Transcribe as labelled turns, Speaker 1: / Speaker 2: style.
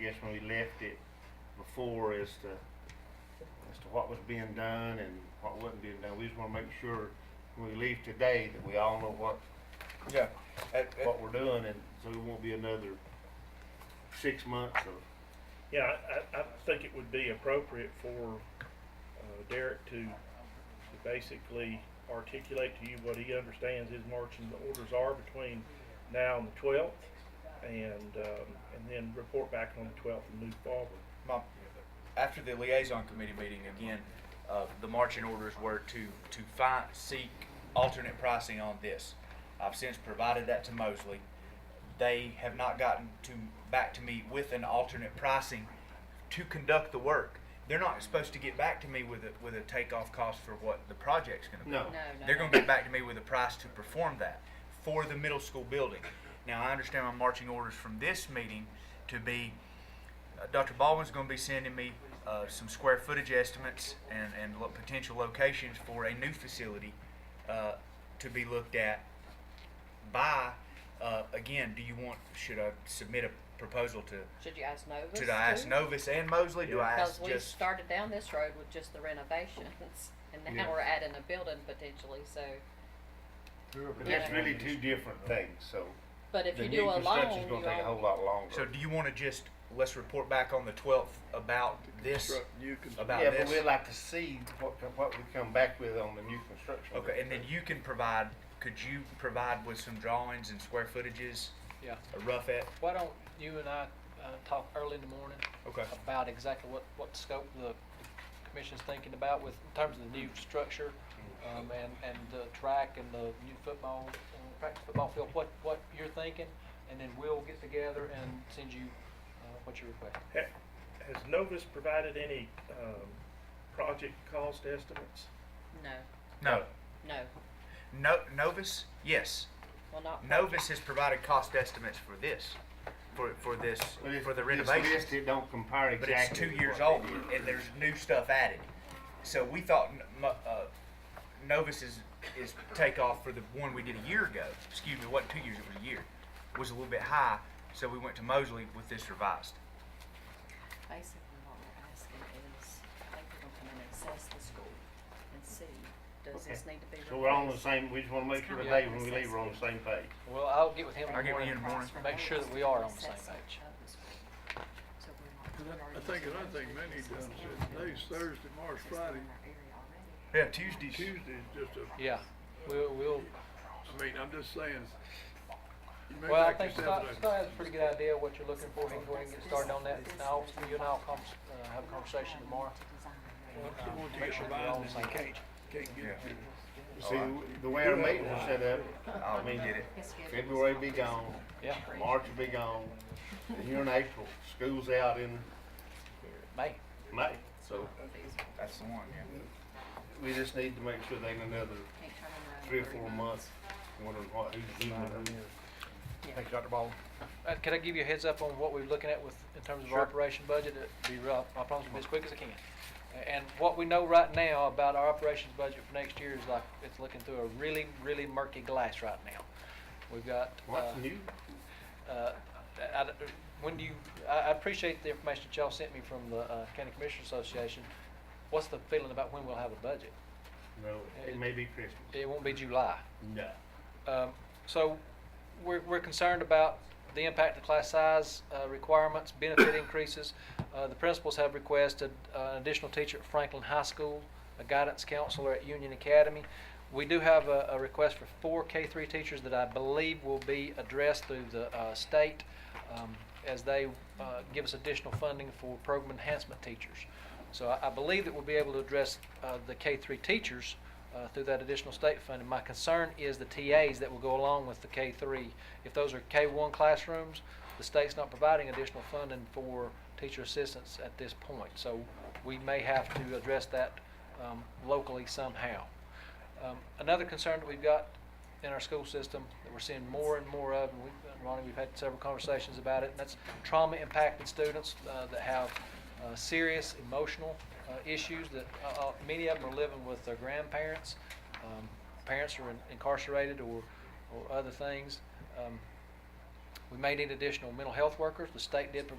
Speaker 1: guess when we left it before as to, as to what was being done and what wasn't being done. We just wanna make sure when we leave today that we all know what,
Speaker 2: Yeah, and, and,
Speaker 1: what we're doing and so it won't be another six months of,
Speaker 3: Yeah, I, I, I think it would be appropriate for uh, Derek to, to basically articulate to you what he understands his marching orders are between now and the twelfth, and, um, and then report back on the twelfth and move forward.
Speaker 2: my, after the liaison committee meeting again, uh, the marching orders were to, to find, seek alternate pricing on this. I've since provided that to Mosley. They have not gotten to, back to me with an alternate pricing to conduct the work. They're not supposed to get back to me with a, with a takeoff cost for what the project's gonna be.
Speaker 1: no.
Speaker 4: No,
Speaker 2: They're
Speaker 4: no,
Speaker 2: going to get back to me with a price to perform that for the middle school building. Now, I understand my marching orders from this meeting to be, uh, Dr. Baldwin's going to be sending me uh, some square footage estimates and, and lo- potential locations for a new facility uh, to be looked at by, uh, again, do you want, should I submit a proposal to,
Speaker 4: should you ask Novus?
Speaker 2: should I ask
Speaker 4: too?
Speaker 2: Novus and Mosley? Do I
Speaker 4: Because
Speaker 2: ask
Speaker 4: we
Speaker 2: just?
Speaker 4: started down this road with just the renovations, and
Speaker 2: Yeah.
Speaker 4: now we're adding a building potentially, so,
Speaker 1: But that's really two different things, so.
Speaker 4: but if
Speaker 1: the
Speaker 4: you
Speaker 1: new
Speaker 4: do a loan,
Speaker 1: construction's
Speaker 4: you
Speaker 1: gonna take a whole
Speaker 4: own,
Speaker 1: lot longer.
Speaker 2: So do you want to just, let's report back on the 12th about this, about
Speaker 1: Yeah,
Speaker 2: this?
Speaker 1: but we'd like to see what, what we come back with on the new construction.
Speaker 2: Okay, and then you can provide, could you provide with some drawings and square footages,
Speaker 5: Yeah,
Speaker 2: a rough e-, at?
Speaker 5: why don't you and I uh, talk early in the morning
Speaker 2: Okay.
Speaker 1: Uh,
Speaker 5: about exactly what, what scope the commission's thinking about with, in terms of the new structure, um, and, and the track and the new football, uh, practice football field, what, what you're thinking, and then we'll get together and send you uh, what you request.
Speaker 3: Ha- Has Novus provided any, um, project cost estimates?
Speaker 4: no,
Speaker 2: No,
Speaker 4: no,
Speaker 2: no, Novus, yes,
Speaker 4: well, not.
Speaker 2: Novus has provided cost estimates for this, for, for this,
Speaker 1: But if-
Speaker 2: for the
Speaker 1: This
Speaker 2: renovation.
Speaker 1: list, it don't compare
Speaker 2: But
Speaker 1: exactly.
Speaker 2: it's two
Speaker 1: to
Speaker 2: years
Speaker 1: what
Speaker 2: old,
Speaker 1: they did.
Speaker 2: and there's new stuff added. So we thought, n- mo- uh, Novus is, is takeoff for the one we did a year ago, excuse me, it wasn't two years, it was a year, was a little bit high, so we went to Mosley with this revised.
Speaker 4: Basically, what we're asking is, I think we're gonna come and assess the school and see, does
Speaker 1: Okay.
Speaker 4: this need to be replaced?
Speaker 1: So we're on the same, we just wanna make
Speaker 4: It's
Speaker 1: sure
Speaker 4: kinda
Speaker 1: today
Speaker 4: like
Speaker 1: when we leave, we're on the same page.
Speaker 5: Well, I'll get with him in
Speaker 2: I'll
Speaker 5: the
Speaker 2: get with you in
Speaker 5: morning,
Speaker 2: the morning.
Speaker 5: make sure that we are on the same page.
Speaker 6: And I- I think another thing they need to understand, today's Thursday, March, Friday,
Speaker 2: Yeah, Tuesdays.
Speaker 6: Tuesday's just a,
Speaker 5: Yeah, we'll, we'll,
Speaker 6: I mean, I'm just saying. you may
Speaker 5: well, I
Speaker 6: back
Speaker 5: think
Speaker 6: yourself
Speaker 5: Scott,
Speaker 6: up.
Speaker 5: Scott has a pretty good idea of what you're looking for, he can go ahead and get started on that, and I'll, you and I'll con- uh, have a conversation tomorrow.
Speaker 6: So once you
Speaker 5: Make
Speaker 6: get
Speaker 5: sure
Speaker 6: the
Speaker 5: we're all on
Speaker 6: buying,
Speaker 5: the
Speaker 6: then
Speaker 5: same
Speaker 6: you
Speaker 5: page.
Speaker 6: can't, can't
Speaker 2: Yeah.
Speaker 6: get to it.
Speaker 1: See, the way our meetings are set up,
Speaker 2: Oh, we did it.
Speaker 1: February be gone,
Speaker 5: Yeah,
Speaker 1: March will be gone, and you're in April, school's out in
Speaker 5: May.
Speaker 1: May. So
Speaker 2: That's the one, yeah.
Speaker 1: we just need to make sure they in another three or four months, wondering what, who's doing it.
Speaker 2: Thank you, Dr. Baldwin.
Speaker 5: Uh, Could I give you a heads up on what we're looking at with, in terms of our
Speaker 2: Sure.
Speaker 5: operation budget? It'll be rough, I promise to be as quick as I can. A- And what we know right now about our operations budget for next year is like, it's looking through a really, really murky glass right now. We've got.
Speaker 1: What's
Speaker 5: uh,
Speaker 1: new?
Speaker 5: uh, I- I- When you, I I appreciate the information that y'all sent me from the uh, County Commissioners Association. What's the feeling about when we'll have a budget?
Speaker 1: No, it may be Christmas.
Speaker 5: It won't be July.
Speaker 1: No.
Speaker 5: Um, So we're, we're concerned about the impact of class size uh, requirements, benefit increases. Uh, The principals have requested uh, an additional teacher at Franklin High School, a guidance counselor at Union Academy. We do have a, a request for four K-3 teachers that I believe will be addressed through the uh, state um, as they uh, give us additional funding for program enhancement teachers. So I, I believe that we'll be able to address uh, the K-3 teachers uh, through that additional state funding. My concern is the TAs that will go along with the K-3. If those are K-1 classrooms, the state's not providing additional funding for teacher assistance at this point. So we may have to address that um, locally somehow. Um, Another concern that we've got in our school system that we're seeing more and more of, and we, Ronnie, we've had several conversations about it, and that's trauma-impacted students uh, that have uh, serious emotional uh, issues that, uh, uh, many of them are living with their grandparents. Um, Parents are in- incarcerated or, or other things. Um, We may need additional mental health workers. The state did provide